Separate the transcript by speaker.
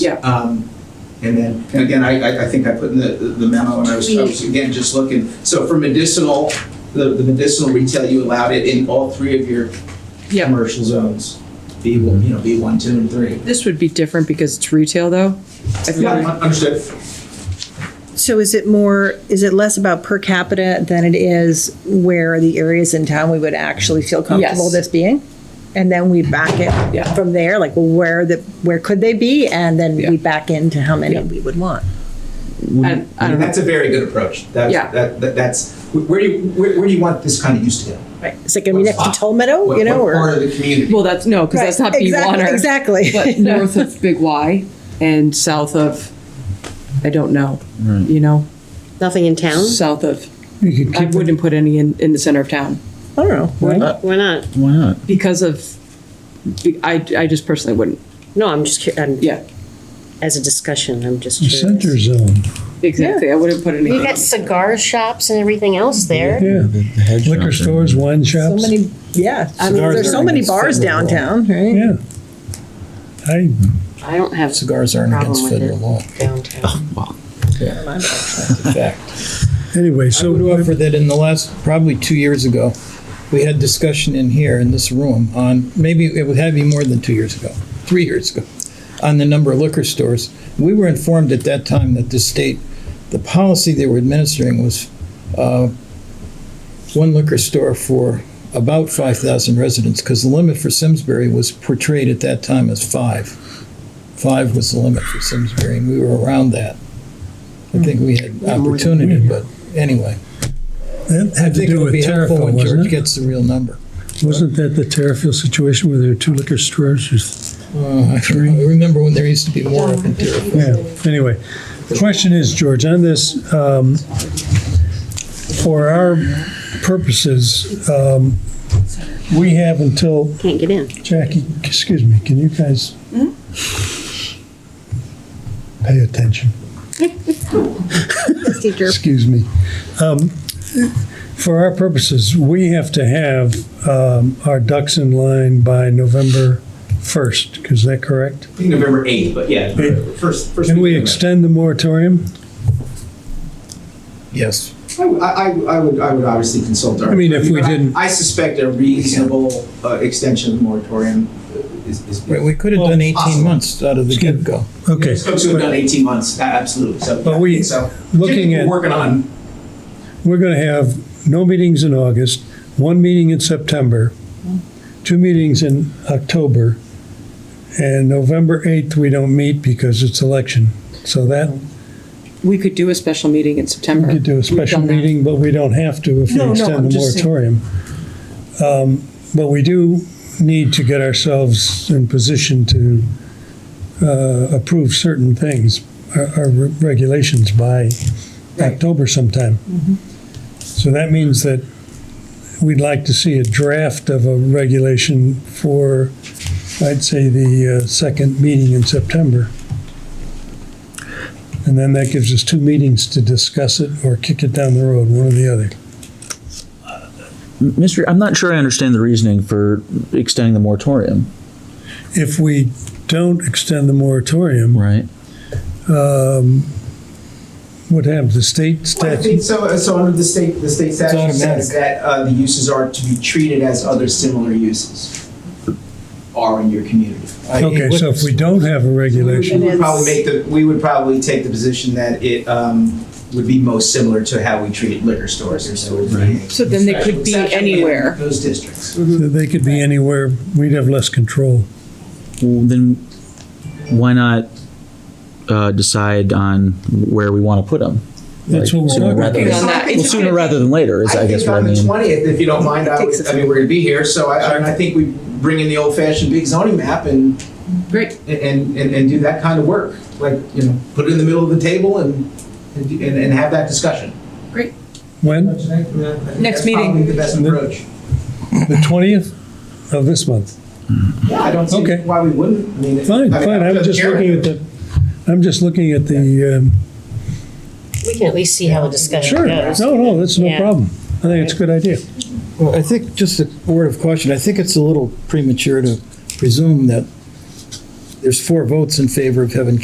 Speaker 1: Yeah.
Speaker 2: Um, and then, and again, I, I, I think I put in the, the memo and I was, I was again just looking. So for medicinal, the, the medicinal retail, you allowed it in all three of your
Speaker 1: Yeah.
Speaker 2: commercial zones. B one, you know, B one, two, and three.
Speaker 1: This would be different because it's retail though. I feel like-
Speaker 2: Yeah, understood.
Speaker 3: So is it more, is it less about per capita than it is where the areas in town we would actually feel comfortable
Speaker 1: Yes.
Speaker 3: this being? And then we back it
Speaker 1: Yeah.
Speaker 3: from there, like well, where the, where could they be? And then
Speaker 1: Yeah.
Speaker 3: we back into how many
Speaker 1: Yeah.
Speaker 3: we would want.
Speaker 1: I- I
Speaker 2: And
Speaker 1: don't know.
Speaker 2: that's a very good approach. That's,
Speaker 1: Yeah.
Speaker 2: that, that, that's, where do you, where, where do you want this kind of use to go?
Speaker 3: Right. It's like, I mean,
Speaker 2: What
Speaker 3: next to
Speaker 2: spot?
Speaker 3: Toll Meadow,
Speaker 2: What-
Speaker 3: you know,
Speaker 2: what Part
Speaker 3: or.
Speaker 2: of the community.
Speaker 1: Well, that's, no, because that's not
Speaker 3: Right, exactly-
Speaker 1: B1 or.
Speaker 3: Exactly.
Speaker 1: But north of Big Y and south of, I don't know, you know,
Speaker 4: Nothing in town?
Speaker 1: south of, I wouldn't put any in, in the center of town
Speaker 3: I don't know.
Speaker 4: Why not?
Speaker 5: Why not?
Speaker 1: because of, I, I just personally wouldn't,
Speaker 4: No, I'm just, cur- I'm,
Speaker 1: yeah,
Speaker 4: as a discussion, I'm just
Speaker 6: The
Speaker 4: curious.
Speaker 6: center zone,
Speaker 1: exactly, I wouldn't put any.
Speaker 4: You got cigar shops and everything else there.
Speaker 6: yeah. Liquor stores, wine
Speaker 3: So
Speaker 6: shops,
Speaker 3: many, yeah, I mean,
Speaker 6: Cigars
Speaker 3: there's
Speaker 6: are
Speaker 3: so
Speaker 6: in
Speaker 3: many
Speaker 6: the
Speaker 3: bars
Speaker 6: center of the
Speaker 3: downtown, right?
Speaker 6: yeah. I,
Speaker 4: I don't have
Speaker 7: Cigars aren't
Speaker 4: Problem
Speaker 7: against
Speaker 4: with
Speaker 7: federal
Speaker 4: it.
Speaker 7: law.
Speaker 4: downtown.
Speaker 7: That's a fact.
Speaker 6: anyway,
Speaker 7: I would
Speaker 6: so,
Speaker 7: offer that in the last, probably two years ago, we had discussion in here in this room on, maybe it would have been more than two years ago, three years ago, on the number of liquor stores. We were informed at that time that the state, the policy they were administering was uh, one liquor store for about 5,000 residents, because the limit for Simsbury was portrayed at that time as five. Five was the limit for Simsbury, and we were around that. I think we had opportunity, but anyway.
Speaker 6: that
Speaker 7: I
Speaker 6: had to
Speaker 7: think it
Speaker 6: do
Speaker 7: would
Speaker 6: with
Speaker 7: be helpful
Speaker 6: Terrifil,
Speaker 7: when George
Speaker 6: wasn't it?
Speaker 7: gets the real number.
Speaker 6: Wasn't that the Terrifil situation where there were two liquor stores?
Speaker 7: Uh, I remember when there used to be more up in Terrifil.
Speaker 6: Yeah, anyway, the question is, George, on this, um, for our purposes, um, we have until,
Speaker 4: Can't get in.
Speaker 6: Jackie, excuse me, can you guys pay attention?
Speaker 3: Teacher.
Speaker 6: excuse me. Um, For our purposes, we have to have um, our ducks in line by November 1st, is that correct?
Speaker 2: I think November eighth, but yeah,
Speaker 6: Eighth.
Speaker 2: first, first.
Speaker 6: Can we
Speaker 2: week of
Speaker 6: extend the moratorium?
Speaker 7: Yes.
Speaker 2: November. I, would- I, I would, I would obviously consult our.
Speaker 6: I mean, if
Speaker 2: attorney,
Speaker 6: we
Speaker 2: but I-
Speaker 6: didn't-
Speaker 2: I suspect a reasonable, uh, extension of the moratorium uh, is, is.
Speaker 7: Right, we could have done 18
Speaker 2: Possible.
Speaker 7: months out of the get-go.
Speaker 6: Okay.
Speaker 2: Folks who have done eighteen months, a- absolutely, so.
Speaker 6: But we-
Speaker 2: so,
Speaker 6: looking
Speaker 2: we're
Speaker 6: at-
Speaker 2: Working on,
Speaker 6: We're going to have no meetings in August, one meeting in September, two meetings in October, and November 8th, we don't meet because it's election. So that,
Speaker 1: We could do a special meeting in September.
Speaker 6: we could do a
Speaker 1: We've
Speaker 6: special
Speaker 1: done that.
Speaker 6: meeting, but we don't have to if
Speaker 1: No,
Speaker 6: we
Speaker 1: no, I'm
Speaker 6: extend the
Speaker 1: just saying-
Speaker 6: moratorium. Um, But we do need to get ourselves in position to uh, approve certain things, our our re- regulations by
Speaker 2: Right.
Speaker 6: October sometime.
Speaker 1: Mm-hmm.
Speaker 6: So that means that we'd like to see a draft of a regulation for, I'd say, the uh, second meeting in September. And then that gives us two meetings to discuss it or kick it down the road, one or the other.
Speaker 5: Mr. I'm not sure I understand the reasoning for extending the moratorium.
Speaker 6: If we don't extend the moratorium,
Speaker 5: Right.
Speaker 6: what happens? The state
Speaker 2: Well, I
Speaker 6: statute?
Speaker 2: think so, uh, so under the state, the state statute
Speaker 7: automatic.
Speaker 2: says that, uh, the uses are to be treated as other similar uses are in your community.
Speaker 7: I-
Speaker 6: Okay, so if we don't have a regulation,
Speaker 2: We would
Speaker 3: And
Speaker 2: probably make
Speaker 3: it's-
Speaker 2: the, we would probably take the position that it um, would be most similar to how we treat liquor stores or so. it would be a
Speaker 1: So then they
Speaker 2: special
Speaker 1: could be
Speaker 2: exception in
Speaker 1: anywhere.
Speaker 2: Those districts.
Speaker 6: they could be anywhere, we'd have less control.
Speaker 5: Well, then why not uh, decide on where we want to put them?
Speaker 6: That's what we're
Speaker 5: sooner
Speaker 6: talking
Speaker 5: rather
Speaker 1: Working
Speaker 5: than-
Speaker 1: on that. It's
Speaker 5: Well,
Speaker 1: just
Speaker 5: sooner
Speaker 1: gonna
Speaker 5: rather
Speaker 1: take-
Speaker 5: than later is, I guess,
Speaker 2: think
Speaker 5: what I
Speaker 2: on the
Speaker 5: mean.
Speaker 2: twentieth, if you don't mind, I
Speaker 1: Takes
Speaker 2: would,
Speaker 1: us-
Speaker 2: I mean, we're gonna be here, so I, I mean, I think we bring in the old fashioned big zoning map and,
Speaker 1: Great,
Speaker 2: and, and, and do that kind of work. Like, you know, put it in the middle of the table and, and, and have that discussion.
Speaker 1: great.
Speaker 6: When?
Speaker 2: Don't you think? Yeah, I think
Speaker 1: Next
Speaker 2: that's
Speaker 1: meeting.
Speaker 2: Probably the best approach.
Speaker 6: The 20th of this month?
Speaker 2: Yeah, I don't see
Speaker 6: Okay.
Speaker 2: why we wouldn't. I mean, it-
Speaker 6: Fine,
Speaker 2: I mean,
Speaker 6: fine, I'm
Speaker 2: doesn't
Speaker 6: just
Speaker 2: care.
Speaker 6: looking at the, I'm just looking at the, um,
Speaker 4: We can at least see how a discussion
Speaker 6: sure,
Speaker 4: goes.
Speaker 6: no, no, that's no
Speaker 4: Yeah.
Speaker 6: problem. I think it's a good idea.
Speaker 7: Well, I think, just a word of caution, I think it's a little premature to presume that there's four votes in favor of having